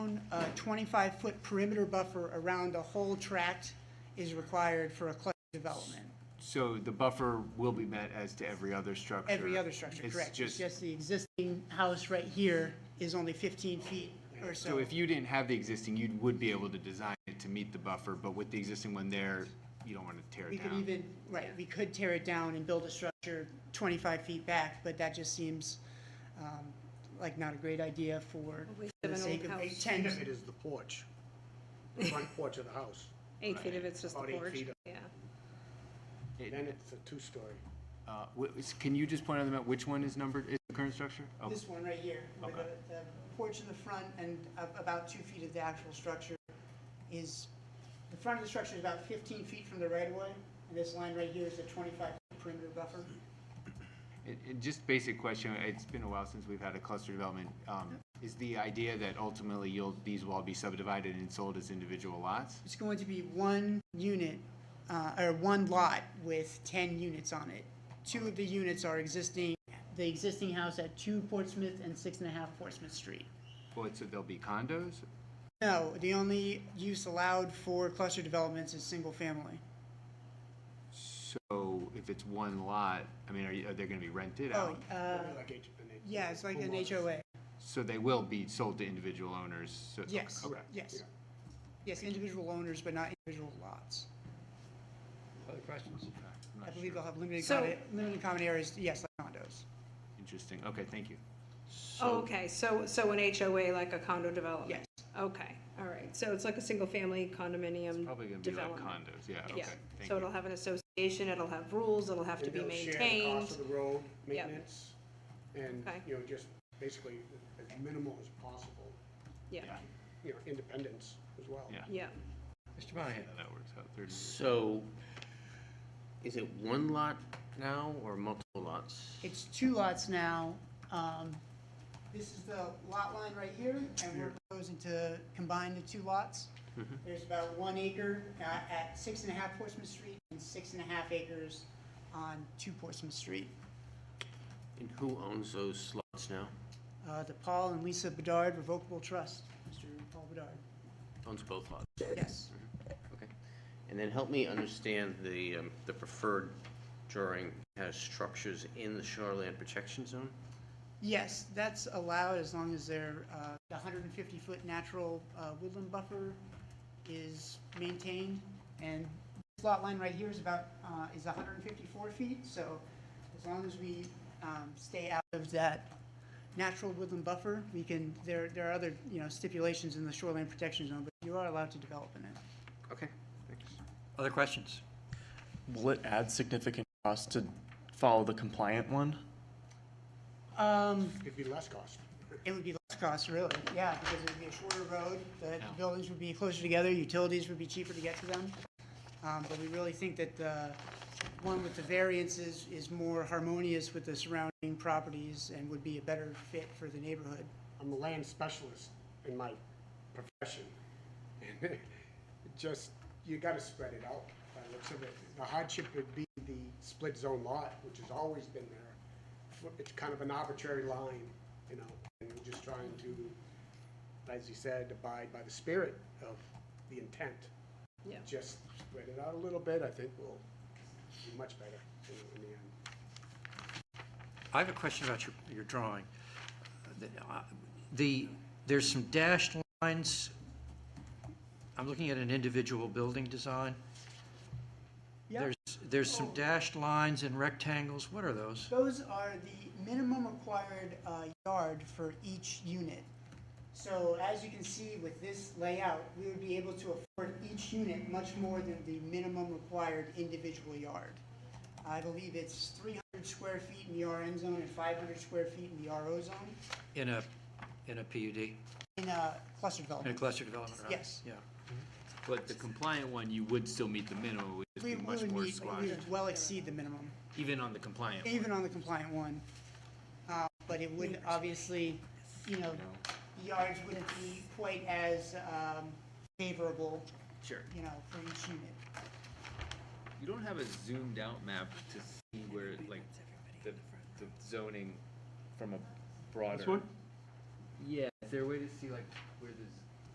25-foot uh, perimeter buffer around the whole tract is required for a cluster development. So the buffer will be met as to every other structure? Every other structure, It's correct. It's just- just the existing house right here is only 15 feet or So so. if you didn't have the existing, you would be able to design it to meet the buffer, but with the existing one there, you don't want to tear We it could down. even, right, we could tear it down and build a structure 25 feet back, but that just seems um, like not a great idea for We for the have an sake of old house. 10 Eight feet of it is the porch, the front porch of the house. Eight feet if it's just the About eight porch, feet. yeah. It- Then it's a two-story. uh, wh- is- Can you just point out the map, which one is numbered, is the current structure? Oh, This one right here, with Okay. the the porch in the front and a- about two feet of the actual structure is, the front of the structure is about 15 feet from the right-of-way, and this line right here is the 25 perimeter buffer. it- it- Just basic question, it's been a while since we've had a cluster development. Um, Is the idea that ultimately you'll, these will all be subdivided and sold as individual lots? It's going to be one unit, uh, or one lot with 10 units on it. Two of the units are existing, the existing house at 2 Portsmouth and 6.5 Portsmouth Street. What, so there'll be condos? No, the only use allowed for cluster developments is single-family. So if it's one lot, I mean, are you- are they going to be rented Oh, out? uh, It'd be like eight- an eight- yeah, it's like an homeowners. HOA. So they will be sold to individual owners? so- Yes, okay. yes. Yes, individual owners, but not individual lots. Other questions? I'm I not believe sure. they'll have limited, So- common- limited common areas, yes, like condos. Interesting, okay, thank you. Oh, okay, so, so an HOA, like a condo development? Yes. Okay, all right, so it's like a single-family condominium Probably gonna be like development? condos, yeah, okay, Yeah, thank so it'll you. have an association, it'll have rules, it'll have to And be they'll Share the maintained. cost of the road, maintenance, and, Okay. you know, just basically as minimal as possible, Yeah, Yeah, you know, independence as well. Yeah. yeah, Mr. Monahan? that works out, thirty. So, is it one lot now or multiple lots? It's two lots now. Um, This is the lot line right here, and we're proposing to combine the two lots. Mm-hmm. There's about one acre uh, at six and a half Portsmouth Street and six and a half acres on two Portsmouth Street. And who owns those lots now? Uh, The Paul and Lisa Bedard Revocable Trust, Mr. Paul Bedard, Owns both lots, yes. okay. And then help me understand the, um, the preferred drawing has structures in the shoreline protection zone? Yes, that's allowed as long as their, uh, the 150-foot natural uh, woodland buffer is maintained. And this lot line right here is about, uh, is 154 feet, so as long as we um, stay out of that natural woodland buffer, we can, there, there are other, you know, stipulations in the shoreline protection zone, but you are allowed to develop in it. Okay. Other questions? Will it add significant cost to follow the compliant one? Um, It'd be less cost. It would be less cost, really, yeah, because it would be a shorter road, the buildings would be closer together, utilities would be cheaper to get to them. Um, but we really think that the one with the variances is more harmonious with the surrounding properties and would be a better fit for the neighborhood. I'm a land specialist in my profession. and Just, you gotta spread it out by the looks of it. The hardship would be the split zone lot, which has always been there. For- It's kind of an arbitrary line, you know, and we're just trying to, as you said, abide by the spirit of the intent. yeah. Just spread it out a little bit, I think we'll be much better you know, in the end. I have a question about your, your drawing. The- uh, The, there's some dashed lines. I'm looking at an individual building design. There's, there's some dashed lines and rectangles. What are those? Those are the minimum required uh, yard for each unit. So as you can see with this layout, we would be able to afford each unit much more than the minimum required individual yard. I believe it's 300 square feet in the RN zone and 500 square feet in the RO zone In a, in a PUD, in a cluster in a development. cluster development, right? Yes. Yeah. But the compliant one, you would still meet the minimum, it would just We be we much would more meet- we squashed, would well exceed the minimum. even on the compliant. one. even on the compliant one. Uh, But it would obviously, you know, yards wouldn't be quite as um, favorable, Sure. you know, for each unit. You don't have a zoomed out map to see where, like, the, the zoning from a broader. This one? Yeah, is there a way to see like where the